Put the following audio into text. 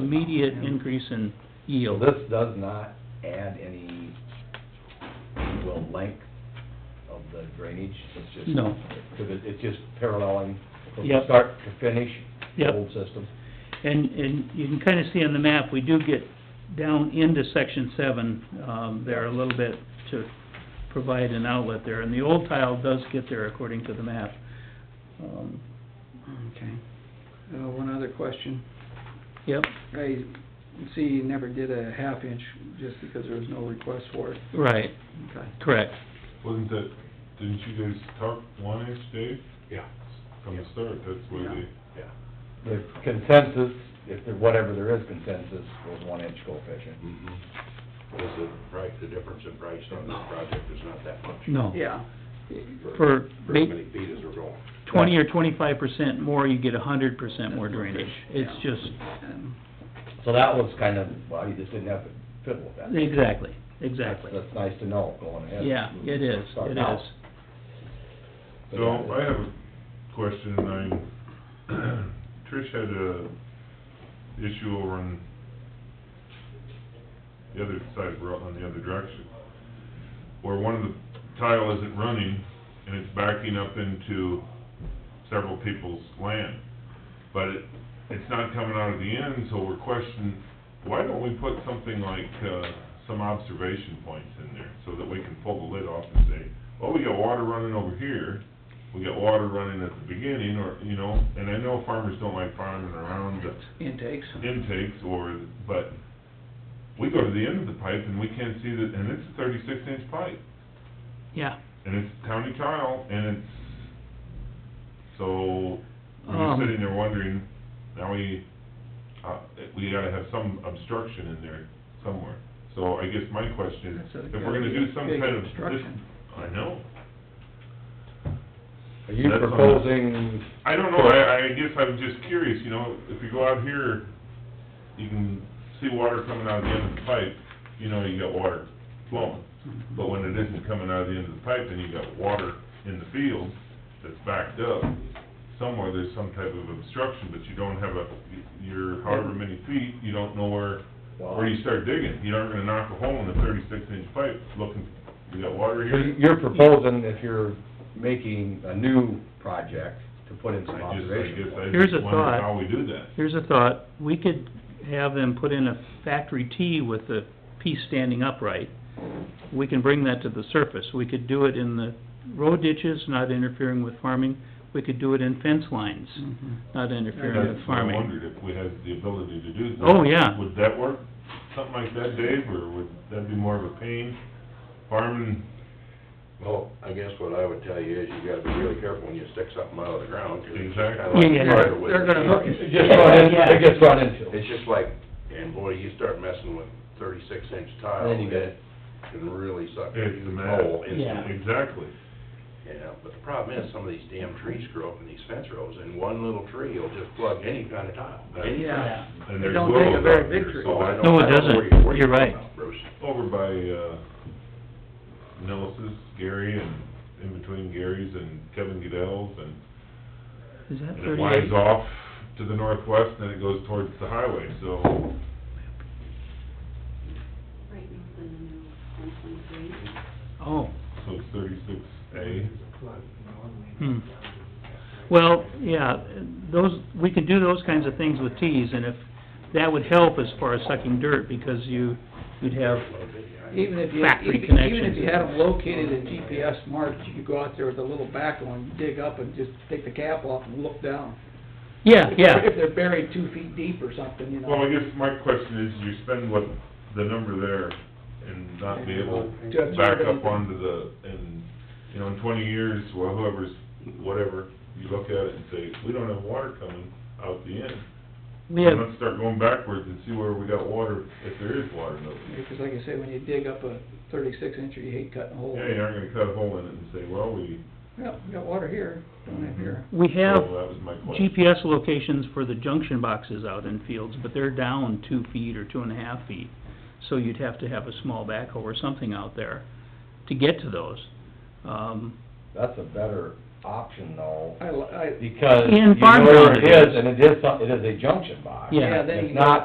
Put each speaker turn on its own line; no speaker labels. immediate increase in
So
yield.
this does not add any, well, length of the drainage, it's just...
No.
Because it, it's just paralleling from
Yep.
start to finish, the
Yep.
old system.
And, and you can kinda see on the map, we do get down into section seven, um, there a little bit to provide an outlet there, and the old tile does get there according to the map. Um,
Okay. Uh, one other question.
Yep,
I see you never did a half inch just because there was no request for it.
right,
Okay.
correct.
Wasn't that, didn't you guys talk one inch, Dave?
Yeah.
From the
Yeah.
start, that's why they,
Yeah. The consensus, if there, whatever there is consensus, was one inch coefficient.
Is the price, the difference in price on this project is not that much?
No.
Yeah.
For
For
ma-
as many feet as we're going.
twenty or twenty-five percent more, you get a hundred percent more drainage. It's
Yeah.
just,
And
So that was kind of, well, you just didn't have to fiddle with that.
exactly, exactly.
That's that's nice to know going ahead.
Yeah, it is,
Start
it
now.
is.
But
so
that-
I have a question, and I, Trish had a issue over on the other side of Rutland, the other direction, where one of the tile isn't running, and it's backing up into several people's land. But it, it's not coming out of the end, so we're questioning, why don't we put something like, uh, some observation points in there, so that we can pull the lid off and say, well, we got water running over here, we got water running at the beginning, or, you know, and I know farmers don't like farming around the
Intakes.
intakes or, but we go to the end of the pipe and we can't see that, and it's a thirty-six inch pipe,
Yeah,
and it's county tile, and it's, so, we're
Um.
just sitting there wondering, now we, uh, we gotta have some obstruction in there somewhere. So I guess my question is,
That's a-
if we're gonna do some
big
kind of, this,
obstruction.
I know,
Are you
That's on the-
proposing
I don't know, I, I guess I'm just curious, you know, if you go out here, you can see water coming out of the end of the pipe, you know you got water flowing. But when it isn't coming out of the end of the pipe, then you got water in the field that's backed up. Somewhere there's some type of obstruction, but you don't have a, you're however many feet, you don't know where, where you start digging. You aren't gonna knock a hole in a thirty-six inch pipe looking, you got water
So
here.
you're proposing if you're making a new project to put in some
I just, I
observation
guess
points.
I
Here's a
just wonder
thought.
how we do that.
here's a thought, we could have them put in a factory tee with the piece standing upright. We can bring that to the surface, we could do it in the road ditches, not interfering with farming, we could do it in fence lines,
Mhm.
not interfering
That's
with
what I
farming.
wondered, if we had the ability to do that.
Oh, yeah.
Would that work, something like that, Dave, or would that be more of a pain? Farming,
Well, I guess what I would tell you is you gotta be really careful when you stick something out of the ground, 'cause it's just kinda
Exactly.
like.
Yeah, yeah.
water with
They're
it.
gonna hook
It just run in, it gets run into.
It's just like, and boy, you start messing with thirty-six inch tile,
Then you get-
it can really suck a
it's a
huge
mess.
hole into
Yeah.
Exactly.
Yeah, but the problem is, some of these damn trees grow up in these fence rows, and one little tree will just plug any kind of tile, any kind.
Yeah.
And
It
there's
don't take a
willows
very
out
big
there,
tree.
so
Oh, I
I-
don't-
No, it
I don't know where
doesn't.
where
You're
talking
right.
about, Bruce.
Over by, uh, Nellis's, Gary, and in between Gary's and Kevin Goodell's, and
Is that
and it winds
thirty-eight?
off to the northwest, and then it goes towards the highway, so
Right now, the new one point three.
Oh,
So it's thirty-six A.
hmm. Well, yeah, those, we can do those kinds of things with tees, and if, that would help as far as sucking dirt, because you, you'd have,
Even if you,
Factory
even even
connections.
if you had them located and GPS marked, you could go out there with a little backhoe and dig up and just take the cap off and look down.
yeah, yeah.
If they're buried two feet deep or something, you know.
Well, I guess my question is, you spend what, the number there and not be able
To
to
absorb
back up
anything.
onto the, and, you know, in twenty years, well, whoever's, whatever, you look at it and say, we don't have water coming out the end.
We have,
And Let's start going backwards and see where we got water, if there is water though.
Because like I say, when you dig up a thirty-six incher, you hate cutting holes.
Yeah, you aren't gonna cut a hole in it and say, well, we,
Yeah, we got water here, don't have here.
we
well,
have
that was my question.
GPS locations for the junction boxes out in fields, but they're down two feet or two and a half feet. So you'd have to have a small backhoe or something out there to get to those. Um,
That's a better option though,
I, li- I,
because
In
you know
farm
where
ground
it
it
is,
is.
and it is, some- it is a junction box.
Yeah.
Yeah, then you
It's
know-
not